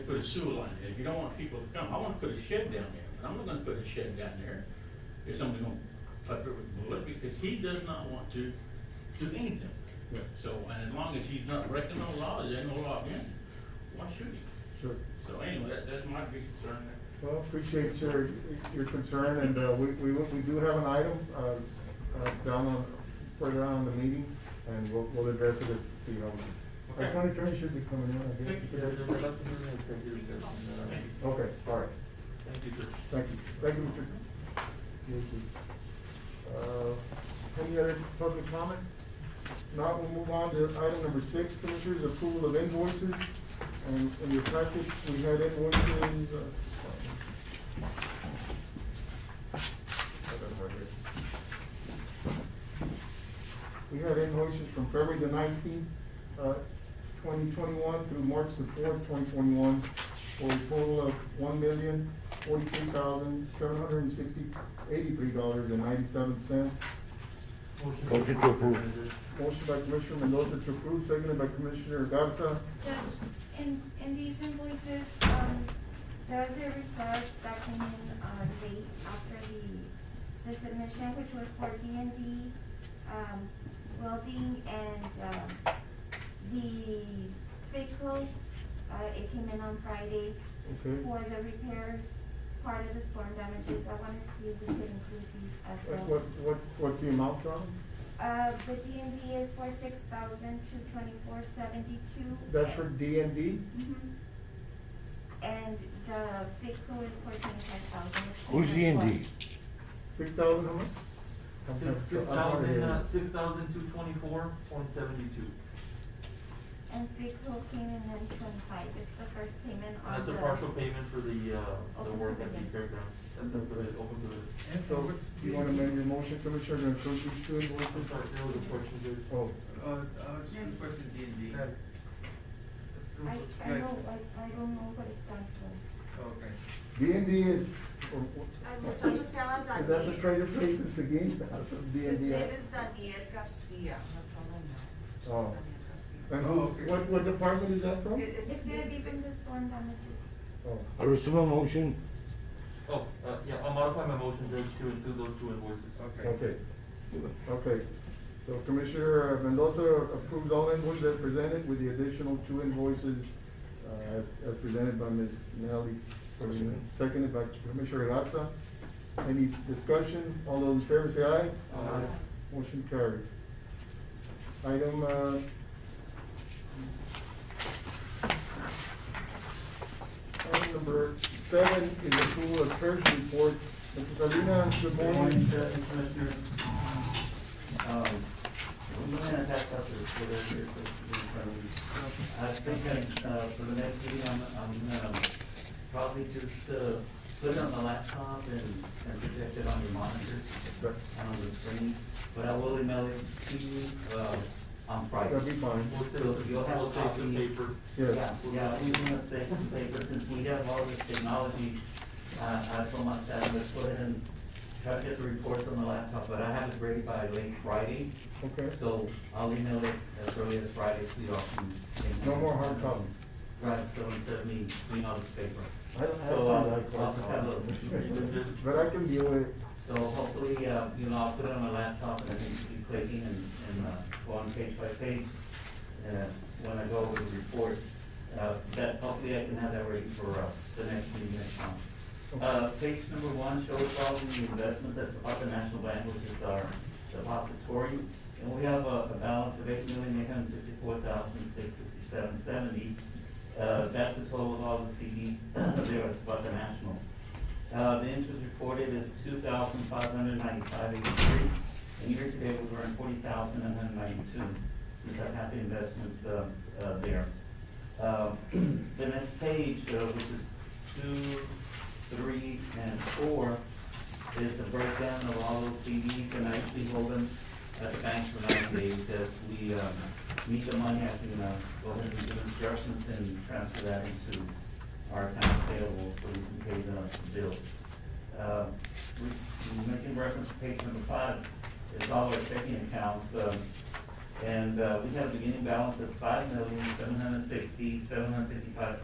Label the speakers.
Speaker 1: put a sewer line there, if you don't want people to come, I wanna put a shed down there, but I'm not gonna put a shed down there if somebody's gonna put it with a bullet, because he does not want to do anything.
Speaker 2: Right.
Speaker 1: So, and as long as he's not breaking no laws, there ain't no law against him, why should he?
Speaker 2: Sure.
Speaker 1: So anyway, that, that's my big concern there.
Speaker 2: Well, appreciate your, your concern, and uh, we, we, we do have an item uh, uh, down on, further on in the meeting, and we'll, we'll address it at the, um, our
Speaker 1: Okay.
Speaker 2: county attorney should be coming in, I
Speaker 1: Thank
Speaker 2: think.
Speaker 1: you.
Speaker 2: Okay, all right,
Speaker 1: Thank you, sir.
Speaker 2: thank you, thank you, Mr. Yuki. Uh, Any other public comment? Now we'll move on to item number six, Commissioners, approval of invoices, and in your package, we had invoices, uh, I don't have it. We have invoices from February the nineteenth, uh, twenty twenty-one through March the fourth, twenty twenty-one, for a total of one million, forty-three thousand, seven hundred and sixty, eighty-three dollars and ninety-seven cents.
Speaker 3: Motion to approve.
Speaker 2: Motion by Commissioner Mendoza to approve, seconded by Commissioner Garza.
Speaker 4: Judge, in, in these invoices, um, there was a request that came in, uh, late after the, the submission, which was for D and D, um, welding and, um, the vehicle, uh, it came in on Friday
Speaker 2: Okay.
Speaker 4: for the repairs, part of the storm damages, I wanted to see if we could include these as well.
Speaker 2: Uh, What, what- what, what's the amount, John?
Speaker 4: Uh, the D and D is for six thousand two twenty-four seventy-two.
Speaker 2: That's for D and D?
Speaker 4: Mhm. Mm-hmm. And the big crew is for twenty-five thousand.
Speaker 3: Who's the ND?
Speaker 2: Six thousand, how much? I'm
Speaker 5: Six,
Speaker 2: sorry,
Speaker 5: six
Speaker 2: I'm sorry.
Speaker 5: thousand, uh, six thousand two twenty-four point seventy-two.
Speaker 4: And big crew came in at twenty-five, it's the first payment on
Speaker 5: That's
Speaker 4: the.
Speaker 5: a partial payment for the, uh, the
Speaker 4: Open
Speaker 5: work at the
Speaker 4: pavilion.
Speaker 5: fairgrounds, and then for the, open to
Speaker 2: So, do you want to amend your motion, Commissioner, and approve these two
Speaker 5: the, I'm
Speaker 2: invoices?
Speaker 5: sorry, there was a portion there.
Speaker 2: Oh,
Speaker 6: Uh, uh, just a question, D and D.
Speaker 4: I, I know, I, I don't know what it stands for.
Speaker 6: Okay.
Speaker 2: D and D is. oh,
Speaker 7: Al muchacho se llama
Speaker 2: Is that the
Speaker 7: Daniel.
Speaker 2: trade of places again? That's D and
Speaker 7: His
Speaker 2: D.
Speaker 7: name is Daniel Garcia, that's all I know.
Speaker 2: Oh.
Speaker 7: Daniel
Speaker 2: And who,
Speaker 6: Oh, okay.
Speaker 2: what, what department is that
Speaker 7: Garcia.
Speaker 2: from?
Speaker 7: It-
Speaker 4: It's gonna be from the storm damages.
Speaker 2: Oh,
Speaker 3: I receive a motion.
Speaker 5: Oh, uh, yeah, I'll modify my motion there to include those two invoices.
Speaker 6: Okay.
Speaker 2: okay, okay. So Commissioner uh, Mendoza approves all invoices as presented with the additional two invoices, uh, as- as presented by Ms. Nelly.
Speaker 3: Second.
Speaker 2: Seconded by Commissioner Garza. Any discussion? All those in favor say aye.
Speaker 7: Aye.
Speaker 2: Motion carries. Item, uh, item number seven is approval of treasurer's report. Mr. Salina, good morning.
Speaker 8: Commissioners. Um, I'm looking at that stuff that's put in here, so it's in front of me. I think, uh, for the next meeting, I'm, I'm gonna probably just, uh, put it on the laptop and, and project it on your monitors
Speaker 2: Sure.
Speaker 8: and on the screen, but I will email it to you, uh, on Friday.
Speaker 2: That'd be fine.
Speaker 5: We'll save,
Speaker 8: So you'll have a
Speaker 5: we'll save some
Speaker 8: copy.
Speaker 5: paper.
Speaker 2: Yes.
Speaker 8: Yeah, yeah, we want to save some paper since we have all this technology. Uh, I told my staff, let's go ahead and try to get the reports on the laptop, but I have it ready by late Friday.
Speaker 2: Okay.
Speaker 8: So I'll email it as early as Friday so y'all can.
Speaker 2: No more hard copy.
Speaker 8: Right, so instead of me cleaning all this paper.
Speaker 2: I don't have
Speaker 8: So,
Speaker 2: to
Speaker 8: uh,
Speaker 2: like
Speaker 8: I'll just have a-
Speaker 2: But I can deal with it.
Speaker 8: So hopefully, uh, you know, I'll put it on my laptop and I can keep clicking and, and, uh, go on page by page. Uh, when I go over the report, uh, that hopefully I can have that ready for, uh, the next meeting next month. Uh, page number one shows all the investment that's at the National Bank, which is our depository. And we have a, a balance of eight million, eight hundred sixty-four thousand, six sixty-seven, seventy. Uh, that's the total of all the CDs there at Sparta National. Uh, the interest reported is two thousand five hundred ninety-five eighty-three, and year to date we earned forty thousand nine hundred ninety-two, since I've had the investments, uh, uh, there. Uh, the next page, uh, which is two, three, and four, is a breakdown of all those CDs, and I actually hold them at the bank for nine days as we, um, need the money, I can, uh, go ahead and give instructions and transfer that into our account payable so we can pay the bills. Uh, we, we making reference to page number five, is all our checking accounts, um, and, uh, we have a beginning balance of five million, seven hundred sixty, seven hundred fifty-five